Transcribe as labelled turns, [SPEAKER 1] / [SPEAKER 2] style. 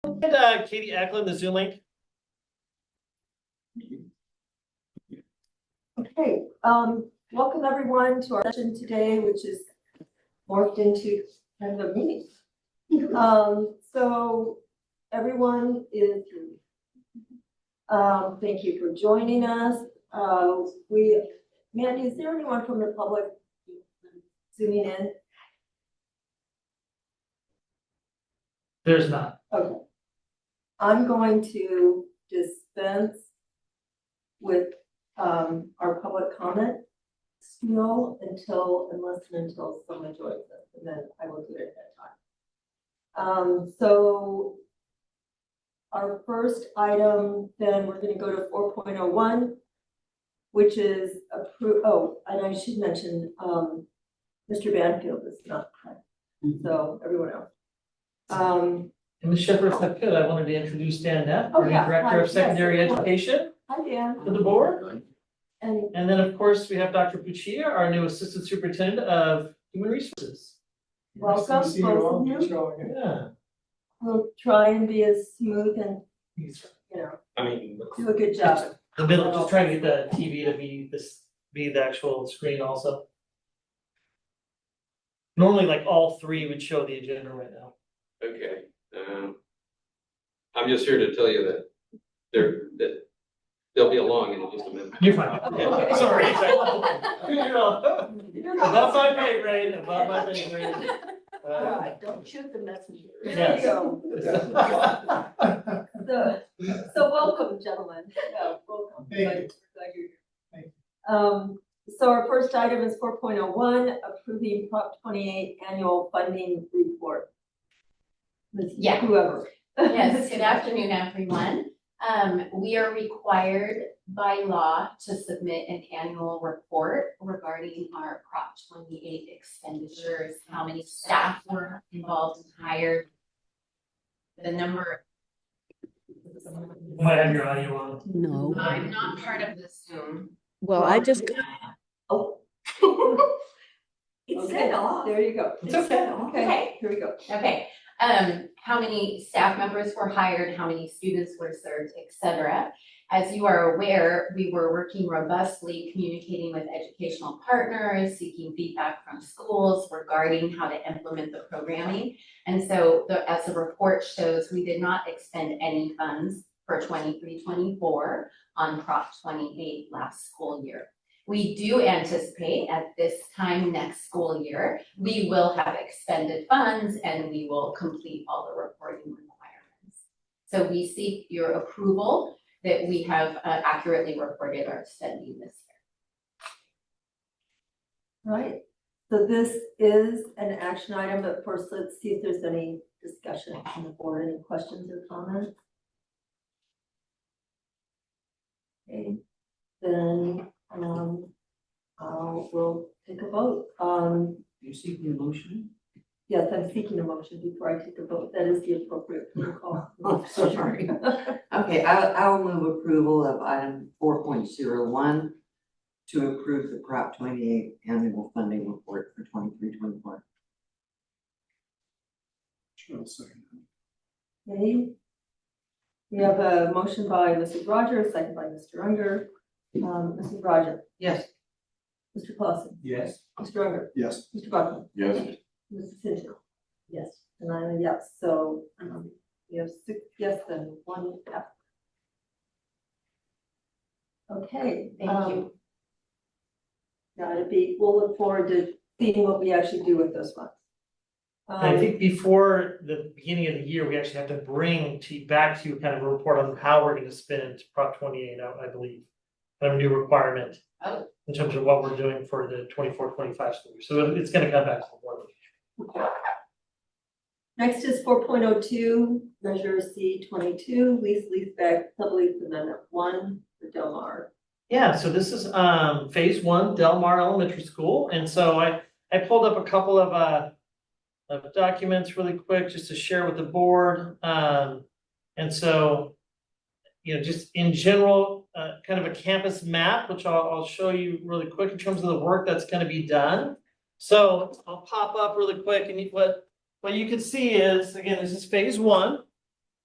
[SPEAKER 1] And uh, Katie Eklund, the Zoom link.
[SPEAKER 2] Okay, um, welcome everyone to our session today, which is morphed into kind of a meeting. Um, so everyone is, um, thank you for joining us. Uh, we, Mandy, is there anyone from the public zooming in?
[SPEAKER 1] There's not.
[SPEAKER 2] Okay. I'm going to dispense with, um, our public comment still until, unless and until someone joins us, and then I will do it at that time. Um, so our first item, then we're gonna go to four point oh one, which is appro, oh, and I should mention, um, Mr. Banfield is not present, so everyone else. Um,
[SPEAKER 1] And Ms. Shepherd, if I could, I wanted to introduce Dan Neff,
[SPEAKER 2] Oh,
[SPEAKER 1] our new
[SPEAKER 2] yeah.
[SPEAKER 1] Director
[SPEAKER 2] Hi.
[SPEAKER 1] of
[SPEAKER 2] Yes,
[SPEAKER 1] Secondary
[SPEAKER 2] of course.
[SPEAKER 1] Education
[SPEAKER 2] Hi, Dan.
[SPEAKER 1] for the board.
[SPEAKER 2] And
[SPEAKER 1] And then, of course, we have Dr. Puccia, our new Assistant Superintendent of Human Resources.
[SPEAKER 2] welcome, both of you.
[SPEAKER 1] Yeah.
[SPEAKER 2] We'll try and be as smooth and,
[SPEAKER 1] He's
[SPEAKER 2] you know,
[SPEAKER 3] I mean,
[SPEAKER 2] do a good job.
[SPEAKER 1] The middle, just trying to get the TV to be this, be the actual screen also. Normally, like all three would show the agenda right now.
[SPEAKER 3] okay, um. I'm just here to tell you that there, that they'll be along in just a minute.
[SPEAKER 1] You're fine.
[SPEAKER 3] Okay.
[SPEAKER 1] Sorry. You know,
[SPEAKER 2] You're
[SPEAKER 1] Above my
[SPEAKER 2] not-
[SPEAKER 1] pay grade, above my pay grade.
[SPEAKER 2] All
[SPEAKER 1] Uh,
[SPEAKER 2] right, don't shoot the messenger. There
[SPEAKER 1] Yes.
[SPEAKER 2] you go.
[SPEAKER 1] Uh,
[SPEAKER 2] So, so welcome, gentlemen. Yeah, welcome.
[SPEAKER 4] Thank you.
[SPEAKER 2] Glad- glad you're here.
[SPEAKER 4] Thank
[SPEAKER 2] Um, so our first item is four point oh one, approving Prop twenty-eight annual funding report. Ms.
[SPEAKER 5] Yeah.
[SPEAKER 2] Whoever.
[SPEAKER 5] Yes, good afternoon, everyone. Um, we are required by law to submit an annual report regarding our Prop twenty-eight expenditures, how many staff were involved and hired, the number.
[SPEAKER 1] You Might have your audio on.
[SPEAKER 6] No.
[SPEAKER 5] I'm not part of the Zoom.
[SPEAKER 6] Well, I just,
[SPEAKER 2] Oh,
[SPEAKER 5] It's
[SPEAKER 2] okay,
[SPEAKER 5] set off.
[SPEAKER 2] there you go.
[SPEAKER 1] It's okay.
[SPEAKER 2] Okay, here we go.
[SPEAKER 5] Okay, um, how many staff members were hired, how many students were served, et cetera. As you are aware, we were working robustly, communicating with educational partners, seeking feedback from schools regarding how to implement the programming. And so the, as the report shows, we did not expend any funds for 23-24 on Prop twenty-eight last school year. We do anticipate at this time next school year, we will have expended funds and we will complete all the reporting requirements. So we seek your approval that we have uh, accurately reported our spending this year.
[SPEAKER 2] Right, so this is an action item, but first let's see if there's any discussion on the board, any questions or comments? Okay, then, um, I'll, we'll take a vote, um. You're seeking a motion? Yes, I'm seeking a motion before I take a vote, that is the appropriate protocol.
[SPEAKER 7] Oh, sorry. Okay, I, I will move approval of item four point zero one to approve the Prop twenty-eight annual funding report for 23-24.
[SPEAKER 2] Okay. We have a motion by Mrs. Rogers, second by Mr. Unger, um, Mrs. Rogers.
[SPEAKER 7] Yes.
[SPEAKER 2] Mr. Clausen.
[SPEAKER 4] Yes.
[SPEAKER 2] Mr. Unger.
[SPEAKER 4] Yes.
[SPEAKER 2] Mr. Buckman.
[SPEAKER 3] Yes.
[SPEAKER 2] Mrs. Finchin. Yes. And I'm a yes, so, um, we have six yes and one F. Okay.
[SPEAKER 5] Thank you.
[SPEAKER 2] um, Gotta be, we'll look forward to seeing what we actually do with those funds.
[SPEAKER 1] I
[SPEAKER 2] Um,
[SPEAKER 1] think before the beginning of the year, we actually have to bring to, back to you kind of a report on how we're gonna spend Prop twenty-eight out, I believe. Kind of a new requirement.
[SPEAKER 5] Oh.
[SPEAKER 1] In terms of what we're doing for the 24-25 school year, so it's gonna come back to the board.
[SPEAKER 2] Next is four point oh two, Measure C twenty-two, lease leaseback sublease amendment one for Del Mar.
[SPEAKER 1] Yeah, so this is um phase one, Del Mar Elementary School, and so I I pulled up a couple of uh. Of documents really quick, just to share with the board, um, and so. You know, just in general, uh, kind of a campus map, which I'll I'll show you really quick in terms of the work that's gonna be done. So I'll pop up really quick and you- what what you can see is, again, this is phase one.